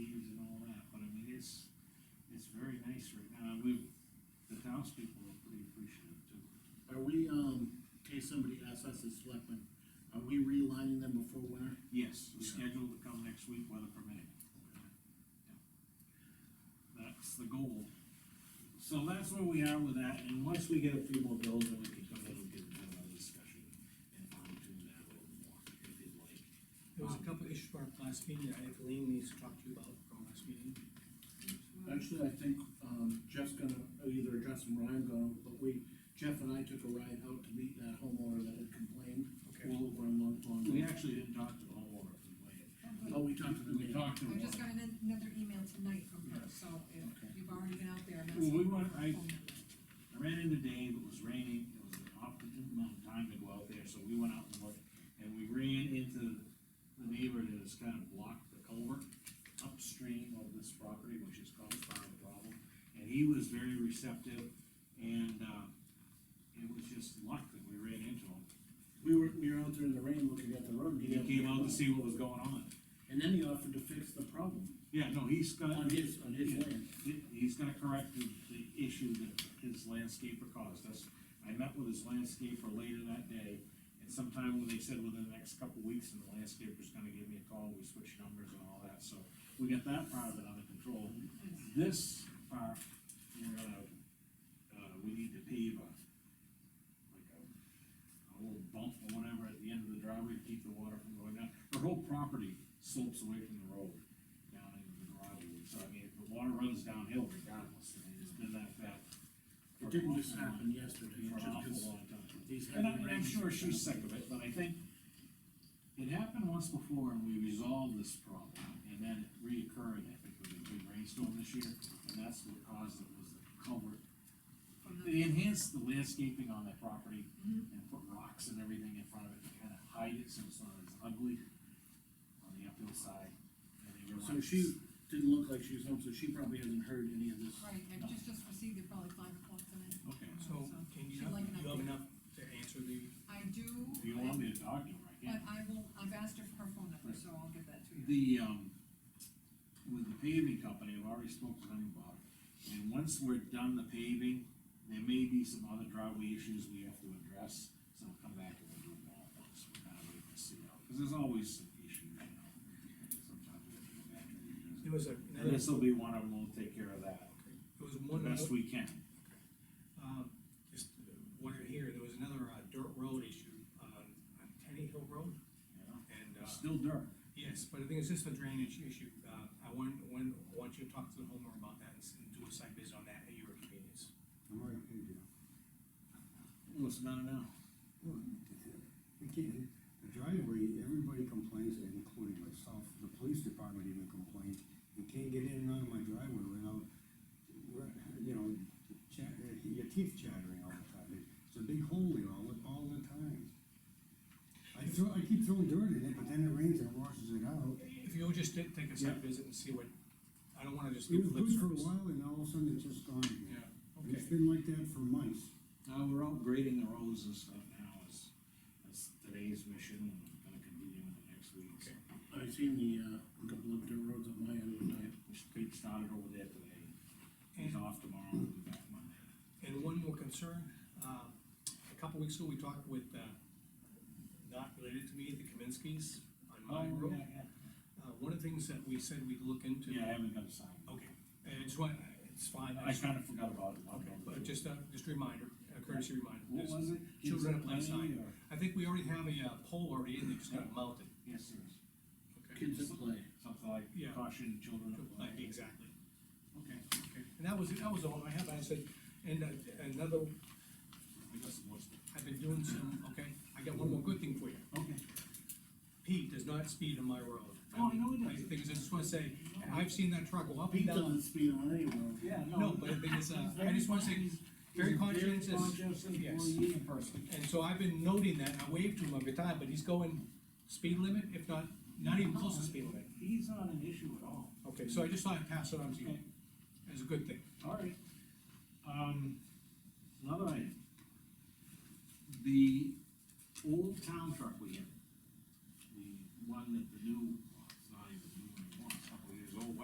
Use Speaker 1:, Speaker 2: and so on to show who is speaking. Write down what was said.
Speaker 1: those people are pretty appreciative too.
Speaker 2: Are we, um, in case somebody asks us as selectmen, are we relining them before winter?
Speaker 1: Yes, we're
Speaker 2: Yeah.
Speaker 1: scheduled to come next week, weather permitting. Yeah. That's the goal. So that's where we are with that, and once we get a few more bills, then we can come in and get another discussion and fine tune that a little more, if you'd like.
Speaker 3: There was a couple issues for our last meeting, that I think Lean needs to talk to you about from last meeting.
Speaker 2: Actually, I think, um, Jeff's gonna either address them or I'm gonna, but we, Jeff and I took a ride out to meet that homeowner that had complained. All over in Long
Speaker 1: We
Speaker 2: Pond.
Speaker 1: actually didn't talk to the homeowner,
Speaker 2: Oh, we talked to them.
Speaker 1: we talked to
Speaker 4: I
Speaker 1: him.
Speaker 4: just got an- another email tonight from her, so if
Speaker 2: Okay.
Speaker 4: you've already been out there, that's.
Speaker 1: Well, we want, I,
Speaker 4: phone number.
Speaker 1: I ran into Dave, it was raining, it was an opportune amount of time to go out there, so we went out and looked, and we ran into the neighbor that has kind of blocked the culvert upstream of this property, which has caused part of the problem, and he was very receptive, and, uh, it was just luck that we ran into him.
Speaker 2: We were, we were out there in the rain looking at the road.
Speaker 1: He came out to see what was going on.
Speaker 2: And then he offered to fix the problem
Speaker 1: Yeah, no, he's got.
Speaker 2: on his, on his
Speaker 1: Yeah.
Speaker 2: land.
Speaker 1: He- He's gonna correct the, the issue that his landscaper caused us. I met with his landscaper later that day, and sometime when they said within the next couple of weeks, and the landscaper's gonna give me a call, we switched numbers and all that, so we got that part of it under control. This part, we're gonna, uh, we need to pave a, like a, a little bump or whatever at the end of the driveway to keep the water from going down. Her whole property slopes away from the road down into the driveway, so I mean, the water runs downhill regardless, and it's been that bad. for
Speaker 2: It
Speaker 1: an
Speaker 2: didn't just
Speaker 1: awful long-
Speaker 2: happen yesterday,
Speaker 1: For
Speaker 2: it
Speaker 1: an
Speaker 2: just,
Speaker 1: awful
Speaker 2: 'cause
Speaker 1: long time.
Speaker 2: these
Speaker 1: And I-
Speaker 2: heavy
Speaker 1: and I'm
Speaker 2: rains-
Speaker 1: sure she's sick of it, but I think it happened once before and we resolved this problem, and then it reoccurred, I think, with a big rainstorm this year, and that's what caused it, was the culvert
Speaker 4: From the-
Speaker 1: they enhanced the landscaping on that property
Speaker 4: Mhm.
Speaker 1: and put rocks and everything in front of it to kind of hide it so it's not as ugly on the uphill side. And they
Speaker 2: So
Speaker 1: realized-
Speaker 2: she didn't look like she was home, so she probably hasn't heard any of this.
Speaker 4: Right, I just, just received it probably five o'clock tonight. Um,
Speaker 1: Okay,
Speaker 3: So, can you,
Speaker 4: She'd like
Speaker 3: you
Speaker 4: an
Speaker 3: have
Speaker 4: update.
Speaker 3: enough to answer the,
Speaker 4: I do.
Speaker 1: if you want me to dog you right
Speaker 4: But
Speaker 1: now?
Speaker 4: I will, I've asked her for her phone number, so I'll give that to you.
Speaker 1: The, um, with the paving company, I've already spoke with them about it. And once we're done the paving, there may be some other driveway issues we have to address, so we'll come back and we'll do them all at once. We're kind of waiting to see how, because there's always some issues, you know. Sometimes we have to go back and revisit.
Speaker 3: there was a,
Speaker 1: And
Speaker 3: another,
Speaker 1: this will be one of them, we'll take care of that
Speaker 3: there was
Speaker 1: the
Speaker 3: one,
Speaker 1: best
Speaker 3: other-
Speaker 1: we can.
Speaker 3: um, just wondering here, there was another uh, dirt road issue, uh, on Tenny Hill Road,
Speaker 1: you know?
Speaker 3: and,
Speaker 1: It's
Speaker 3: uh,
Speaker 1: Still dirt.
Speaker 3: yes, but I think it's just a drainage issue, uh, I want, want, want you to talk to the homeowner about that and s- and do a site visit on that at your convenience.
Speaker 5: I'm already paid you.
Speaker 1: Well, it's not now.
Speaker 5: Well, the- the- The driveway, everybody complains, including myself, the police department even complained, you can't get in and out of my driveway without, you know, chat, your teeth chattering all the time, it's a big hole in all, all the time. I throw, I keep throwing dirt in it, but then it rains and washes it out.
Speaker 3: If you would just ta- take a site
Speaker 1: Yeah.
Speaker 3: visit and see what, I don't wanna just
Speaker 5: It
Speaker 3: leave
Speaker 5: was
Speaker 3: lip
Speaker 5: good for a
Speaker 3: service.
Speaker 5: while, and all of a sudden it's just gone
Speaker 3: Yeah,
Speaker 5: again. And
Speaker 3: okay,
Speaker 5: It's been like that for months.
Speaker 1: Uh, we're out grading the roads and stuff now, is, that's today's mission, and we're gonna continue into next week. so.
Speaker 2: I seen the, uh, couple of dirt roads on my end one night.
Speaker 1: Which Pete started over there today, he's
Speaker 3: And-
Speaker 1: off tomorrow, we'll be back Monday.
Speaker 3: And one more concern, uh, a couple weeks ago, we talked with, uh, not related to me, the Kaminsky's on my
Speaker 1: Oh,
Speaker 3: road. Uh, one of the things that we said we'd look into.
Speaker 1: Yeah, I haven't got a sign.
Speaker 3: Okay, and it's what, it's fine,
Speaker 1: I
Speaker 3: I just-
Speaker 1: kinda forgot about it.
Speaker 3: okay, but just a, just a reminder, a courtesy reminder.
Speaker 1: What was it?
Speaker 3: Children at play
Speaker 1: Kids
Speaker 3: sign.
Speaker 1: or-
Speaker 3: I think we already have a uh, pole already in there, just got mounted.
Speaker 1: Yes, there is.
Speaker 3: Okay.
Speaker 2: Kids at play.
Speaker 1: Something like
Speaker 3: Yeah.
Speaker 1: caution, children at
Speaker 3: Like,
Speaker 1: play.
Speaker 3: Exactly.
Speaker 1: Okay.
Speaker 3: Okay, and that was, that was all I have, I said, and uh, another,
Speaker 1: I guess it was.
Speaker 3: I've been doing some, okay, I got one more good thing for you.
Speaker 1: Okay.
Speaker 3: Pete does not speed on my road.
Speaker 1: Oh, I know he
Speaker 3: The
Speaker 1: doesn't.
Speaker 3: thing is, I just wanna say, I've seen that truck go up and
Speaker 2: Pete
Speaker 3: down.
Speaker 2: doesn't speed on any road.
Speaker 1: Yeah,
Speaker 3: No, but the thing is, uh, I just wanna say, he's very conscientious, yes.
Speaker 1: employee and person.
Speaker 3: And so I've been noting that, I waved to him every time, but he's going speed limit, if not, not even close to speed limit.
Speaker 1: He's not an issue at all.
Speaker 3: Okay, so I just thought I'd pass it on to you,
Speaker 1: Okay.
Speaker 3: as a good thing.
Speaker 1: All right. Um, another item. The old town truck we had, the one that the new